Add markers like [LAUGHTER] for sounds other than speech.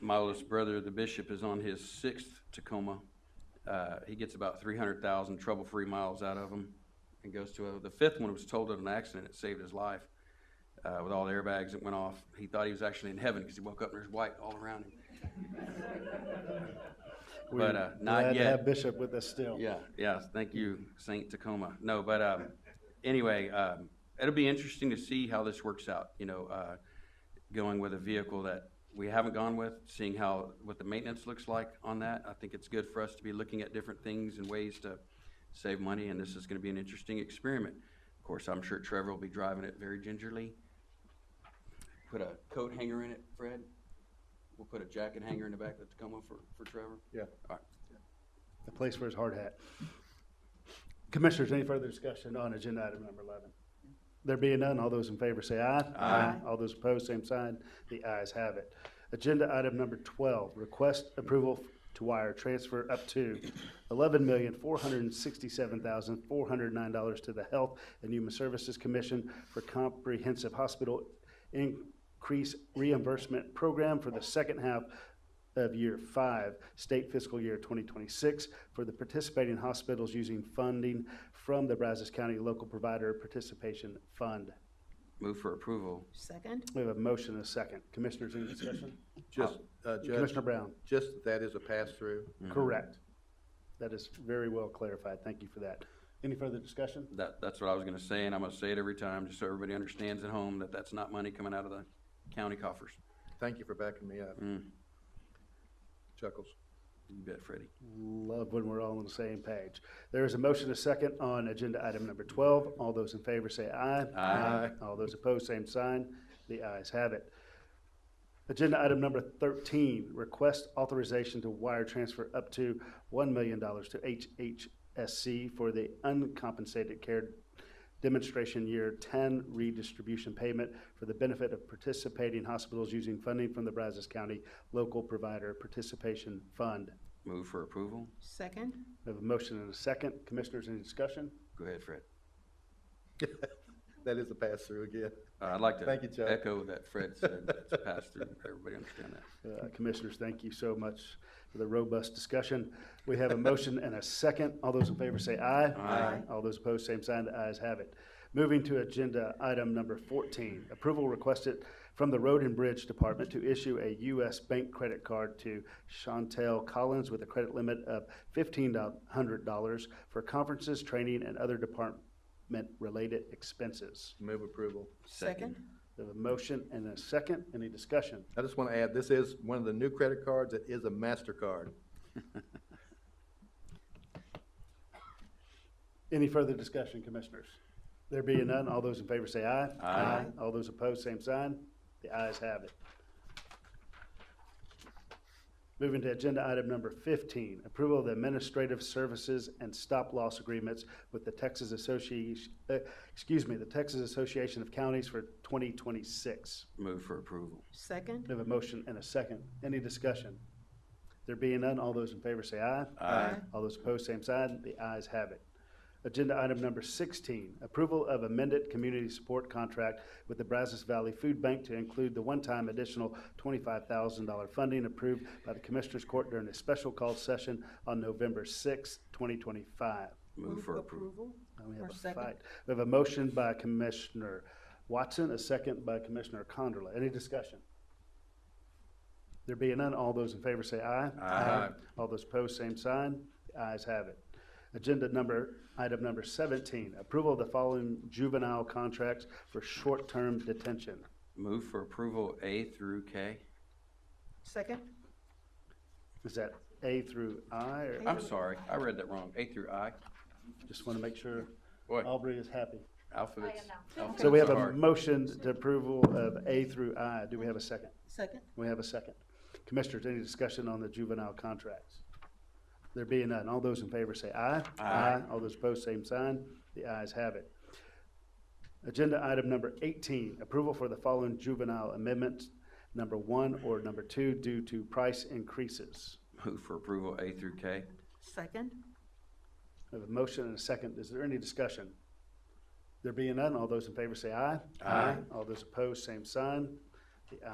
my oldest brother, the bishop, is on his sixth Tacoma. Uh, he gets about three hundred thousand trouble-free miles out of them and goes to a, the fifth one was totaled in an accident. It saved his life uh, with all the airbags that went off. He thought he was actually in heaven because he woke up and there's white all around him. But, uh, We're not glad to yet. have Bishop with us still. Yeah, yeah, thank you, Saint Tacoma. No, but, um, anyway, um, it'll be interesting to see how this works out, you know, uh, going with a vehicle that we haven't gone with, seeing how, what the maintenance looks like on that. I think it's good for us to be looking at different things and ways to save money, and this is gonna be an interesting experiment. Of course, I'm sure Trevor will be driving it very gingerly. Put a coat hanger in it, Fred. We'll put a jacket hanger in the back of the Tacoma for, for Trevor. Yeah. All right. The place where his hard hat. Commissioners, any further discussion on agenda item number eleven? There being none, all those in favor say aye. Aye. All those opposed, same sign. The ayes have it. Agenda item number twelve, request approval to wire transfer up to eleven million, four hundred and sixty-seven thousand, four hundred and nine dollars to the Health and Human Services Commission for Comprehensive Hospital Increase Reimbursement Program for the second half of year five, state fiscal year twenty twenty-six, for the participating hospitals using funding from the Brazos County Local Provider Participation Fund. Move for approval. Second? We have a motion and a second. Commissioners, any discussion? Just, uh, Judge, Oh, Commissioner Brown, just that that is a pass-through. correct. That is very well clarified. Thank you for that. Any further discussion? That, that's what I was gonna say, and I'm gonna say it every time, just so everybody understands at home, that that's not money coming out of the county coffers. Thank you for backing me up. Mm. Chuckles. [LAUGHS] You bet, Freddie. Love when we're all on the same page. There is a motion and a second on agenda item number twelve. All those in favor say aye. Aye. All those opposed, same sign. The ayes have it. Agenda item number thirteen, request authorization to wire transfer up to one million dollars to HHSC for the uncompensated care demonstration year ten redistribution payment for the benefit of participating hospitals using funding from the Brazos County Local Provider Participation Fund. Move for approval. Second? We have a motion and a second. Commissioners, any discussion? Go ahead, Fred. That is a pass-through again. Uh, I'd like Thank you, Chuck. to echo that Fred said, that's a pass-through, everybody understand that. Uh, Commissioners, thank you so much for the robust discussion. We have a motion and a second. All those in favor say aye. Aye. All those opposed, same sign. The ayes have it. Moving to agenda item number fourteen, approval requested from the Road and Bridge Department to issue a U.S. bank credit card to Chantel Collins with a credit limit of fifteen hundred dollars for conferences, training, and other department-related expenses. Move approval. We have a motion and a second. Any discussion? I just want to add, this is one of the new credit cards. It is a MasterCard. Any further discussion, commissioners? There being none, all those in favor say aye. Aye. All those opposed, same sign. The ayes have it. Moving to agenda item number fifteen, approval of the administrative services and stop-loss agreements with the Texas Association, uh, excuse me, the Texas Association of Counties for twenty twenty-six. Move for approval. Second? We have a motion and a second. Any discussion? There being none, all those in favor say aye. Aye. All those opposed, same side. The ayes have it. Agenda item number sixteen, approval of amended community support contract with the Brazos Valley Food Bank to include the one-time additional twenty-five thousand dollar funding approved by the Commissioners Court during a special call session on November sixth, twenty twenty-five. Move for approval. We have Or a second. fight. We have a motion by Commissioner Watson, a second by Commissioner Condrela. Any discussion? There being none, all those in favor say aye. Aye. All those opposed, same sign. The ayes have it. Agenda number, item number seventeen, approval of the following juvenile contracts for short-term detention. Move for approval A through K. Second? Is that A through I, or I'm sorry, I read that wrong, A through I. just want to make sure Boy, Aubrey is happy? alphabets. Oh. So we alphabets have are a hard. motion to approval of A through I. Do we have a second? Second? We have a second. Commissioners, any discussion on the juvenile contracts? There being none, all those in favor say aye. Aye. All those opposed, same sign. The ayes have it. Agenda item number eighteen, approval for the following juvenile amendments, number one or number two, due to price increases. Move for approval A through K. Second? We have a motion and a second. Is there any discussion? There being none, all those in favor say aye. Aye. All those opposed, same sign.